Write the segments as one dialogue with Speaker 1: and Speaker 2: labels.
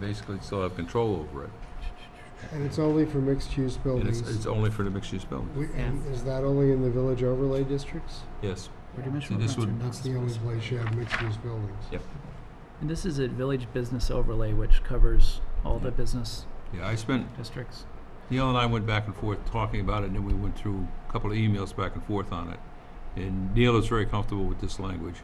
Speaker 1: basically still have control over it.
Speaker 2: And it's only for mixed-use
Speaker 1: And it's,
Speaker 2: buildings.
Speaker 1: it's only for the mixed-use buildings.
Speaker 2: We- and Is that only in the village overlay districts?
Speaker 1: Yes,
Speaker 3: Pretty much
Speaker 1: See,
Speaker 3: what
Speaker 1: this
Speaker 3: Roger
Speaker 1: would-
Speaker 3: does.
Speaker 2: That's the only place you have mixed-use buildings.
Speaker 3: And this is a village business overlay, which covers all the
Speaker 1: Yeah.
Speaker 3: business
Speaker 1: yeah, I spent,
Speaker 3: districts.
Speaker 1: Neil and I went back and forth talking about it, and then we went through a couple of emails back and forth on it. And Neil is very comfortable with this language.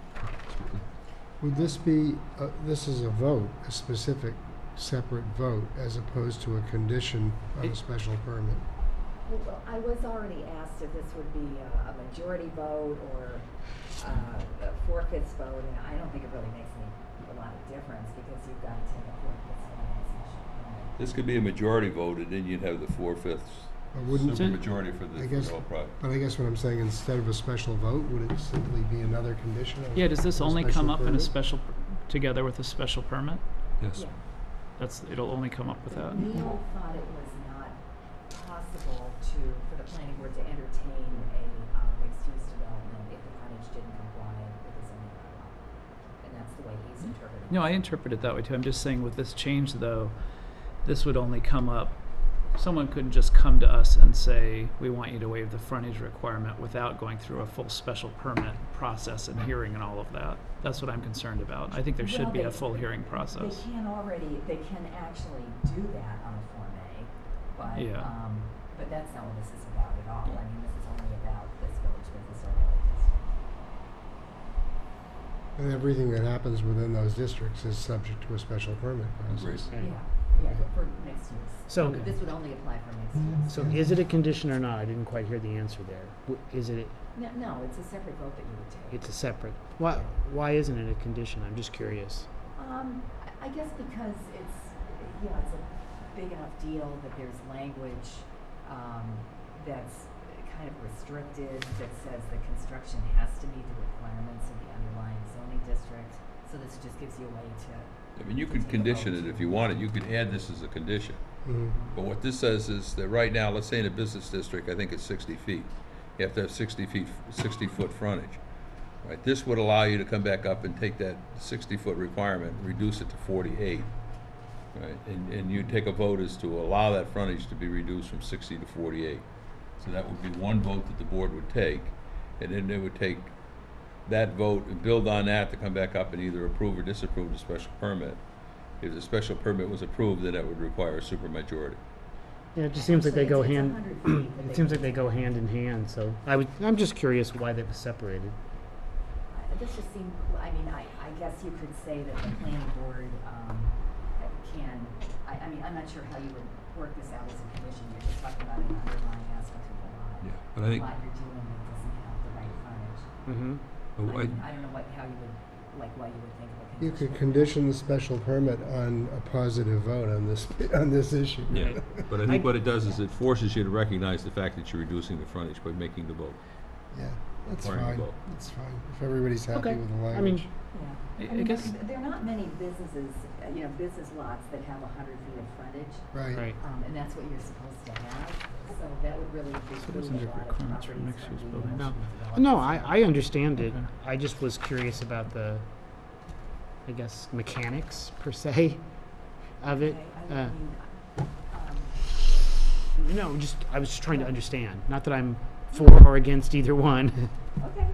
Speaker 2: Would this be, uh, this is a vote, a specific, separate vote, as opposed to a condition of a
Speaker 3: It-
Speaker 2: special permit?
Speaker 4: Well, I was already asked if this would be uh, a majority vote or uh, a four-fifths vote, and I don't think it really makes any, a lot of difference, because you've got to take a four-fifths vote on a special permit.
Speaker 5: This could be a majority vote, and then you'd have the four-fifths
Speaker 2: Or wouldn't,
Speaker 5: supermajority for
Speaker 2: I
Speaker 5: the, for
Speaker 2: guess-
Speaker 5: the whole project.
Speaker 2: but I guess what I'm saying, instead of a special vote, would it simply be another condition of?
Speaker 3: Yeah, does this
Speaker 2: of a
Speaker 3: only
Speaker 2: special
Speaker 3: come up in a
Speaker 2: permit?
Speaker 3: special, per- together with a special permit?
Speaker 1: Yes,
Speaker 4: Yeah.
Speaker 3: That's, it'll only come up with that.
Speaker 4: Neil thought it was not possible to, for the planning board to entertain a uh, mixed-use development if the frontage didn't comply with the zoning bylaw. And that's the way he's interpreting it.
Speaker 3: No, I interpret it that way too. I'm just saying with this change though, this would only come up, someone couldn't just come to us and say, we want you to waive the frontage requirement without going through a full special permit process and hearing and all of that. That's what I'm concerned about. I think there should be
Speaker 4: Well,
Speaker 3: a
Speaker 4: they-
Speaker 3: full hearing process.
Speaker 4: They can already, they can actually do that on a Form A, but,
Speaker 3: Yeah.
Speaker 4: um, but that's not what this is about at all. I mean, this is only about this village business overlay district.
Speaker 2: And everything that happens within those districts is subject to a special permit process.
Speaker 6: Okay.
Speaker 4: Yeah, yeah, but for mixed use.
Speaker 6: So- Mm-hmm.
Speaker 4: But This would only apply for mixed use.
Speaker 6: So is it a condition or not? I didn't quite hear the answer there. W- Is it,
Speaker 4: No, no, it's a separate vote that you would take.
Speaker 6: it's a separate, why, why isn't it a condition? I'm just curious.
Speaker 4: Um, I- I guess because it's, you know, it's a big enough deal that there's language, um, that's kind of restricted, that says the construction has to meet the requirements of the underlying zoning district. So this just gives you a way to,
Speaker 5: I mean, you could condition it if you wanted, you could add this as a condition.
Speaker 2: Mhm.
Speaker 5: But what this says is that right now, let's say in a business district, I think it's sixty feet. You have to have sixty feet, sixty-foot frontage. Right, this would allow you to come back up and take that sixty-foot requirement, reduce it to forty-eight. Right, and, and you take a vote as to allow that frontage to be reduced from sixty to forty-eight. So that would be one vote that the board would take, and then they would take that vote and build on that to come back up and either approve or disapprove the special permit. If the special permit was approved, then that would require a supermajority.
Speaker 6: Yeah, it just seems like they
Speaker 4: Actually,
Speaker 6: go
Speaker 4: it's- it's 100
Speaker 6: hand,
Speaker 4: feet that they
Speaker 6: it seems like
Speaker 4: can
Speaker 6: they go hand in hand, so I would, I'm just curious why they was separated.
Speaker 4: I- uh, this just seemed, I mean, I, I guess you could say that the planning board, um, can, I, I mean, I'm not sure how you would work this out as a condition. You're just talking about an underlying aspect of the lot.
Speaker 1: yeah, but I think,
Speaker 4: lot you're dealing with doesn't have the right frontage.
Speaker 6: Mm-hmm.
Speaker 1: but
Speaker 4: I
Speaker 1: I,
Speaker 4: mean, I don't know what, how you would, like, why you would think of a
Speaker 2: You
Speaker 4: condition.
Speaker 2: could condition the special permit on a positive vote on this, on this issue.
Speaker 1: yeah, but I think
Speaker 6: I-
Speaker 1: what it does is it forces you to recognize the fact that you're reducing the frontage by making the vote.
Speaker 2: Yeah, that's
Speaker 1: Requiring a
Speaker 2: fine,
Speaker 1: vote.
Speaker 2: that's fine, if everybody's happy
Speaker 6: Okay,
Speaker 2: with the
Speaker 6: I mean,
Speaker 2: language.
Speaker 3: I-
Speaker 4: Yeah.
Speaker 3: I
Speaker 4: mean,
Speaker 3: guess-
Speaker 4: th- There are not many businesses, uh, you know, business lots that have a hundred feet of frontage,
Speaker 2: Right,
Speaker 6: right.
Speaker 4: um, and that's what you're supposed to have, so that would really preclude
Speaker 3: there's
Speaker 4: a
Speaker 3: no
Speaker 4: lot of
Speaker 3: requirements for
Speaker 4: properties
Speaker 3: mixed-use
Speaker 4: from
Speaker 3: buildings?
Speaker 4: being
Speaker 6: No.
Speaker 4: developed.
Speaker 6: No, I, I understand it.
Speaker 3: Okay.
Speaker 6: I just was curious about the, I guess, mechanics per se of it.
Speaker 4: Okay, I
Speaker 6: Uh,
Speaker 4: mean, um,
Speaker 6: No, just, I was just trying to understand. Not that I'm for or against either one.
Speaker 4: Okay,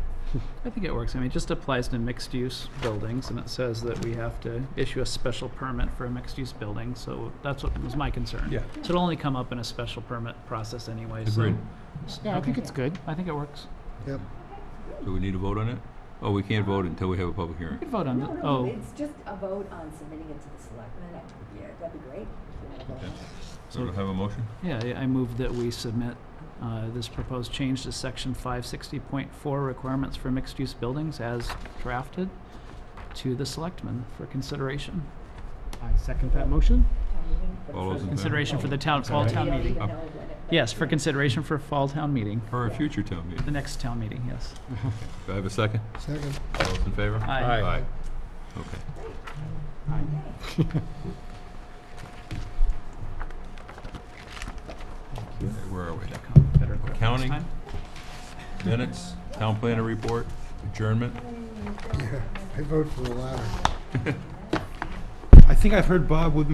Speaker 3: I think it works. I mean, it just applies to mixed-use buildings, and it says that we have to issue a special permit for a mixed-use building, so that's what was my concern.
Speaker 1: Yeah.
Speaker 3: So it'll only come up in a special permit process anyway, so.
Speaker 1: Agreed.
Speaker 3: s-
Speaker 6: Yeah, I think
Speaker 3: okay.
Speaker 6: it's good.
Speaker 3: I think it works.
Speaker 2: yep.
Speaker 1: Do we need a vote on it? Oh, we can't vote until we have a public
Speaker 3: We
Speaker 1: hearing.
Speaker 3: could vote on
Speaker 4: no,
Speaker 3: it.
Speaker 4: no,
Speaker 3: Oh,
Speaker 4: it's just a vote on submitting it to the selectmen, I- yeah, that'd be great. if you had a vote on it.
Speaker 1: So do I have a motion?
Speaker 3: yeah, I- I move that we submit uh, this proposed change to section five sixty point four requirements for mixed-use buildings as drafted to the selectmen for consideration.
Speaker 6: I second that motion.
Speaker 4: Town meeting, but
Speaker 1: All
Speaker 4: it's
Speaker 1: those in
Speaker 4: not-
Speaker 3: Consideration for the town, fall
Speaker 4: We
Speaker 3: town
Speaker 4: don't even
Speaker 3: meeting.
Speaker 4: know when it-
Speaker 3: Yes, for consideration for fall town meeting,
Speaker 1: For a future town
Speaker 3: the
Speaker 1: meeting.
Speaker 3: next town meeting, yes.
Speaker 1: Do I have a second?
Speaker 2: Second,
Speaker 1: All those in favor?
Speaker 3: Aye. Aye.
Speaker 1: Okay. Okay, Where are we?
Speaker 3: Better equipped next
Speaker 1: Accounting.
Speaker 3: time.
Speaker 1: Minutes, town planner report, adjournment.
Speaker 2: yeah, I vote for the latter.
Speaker 7: I think I've heard Bob would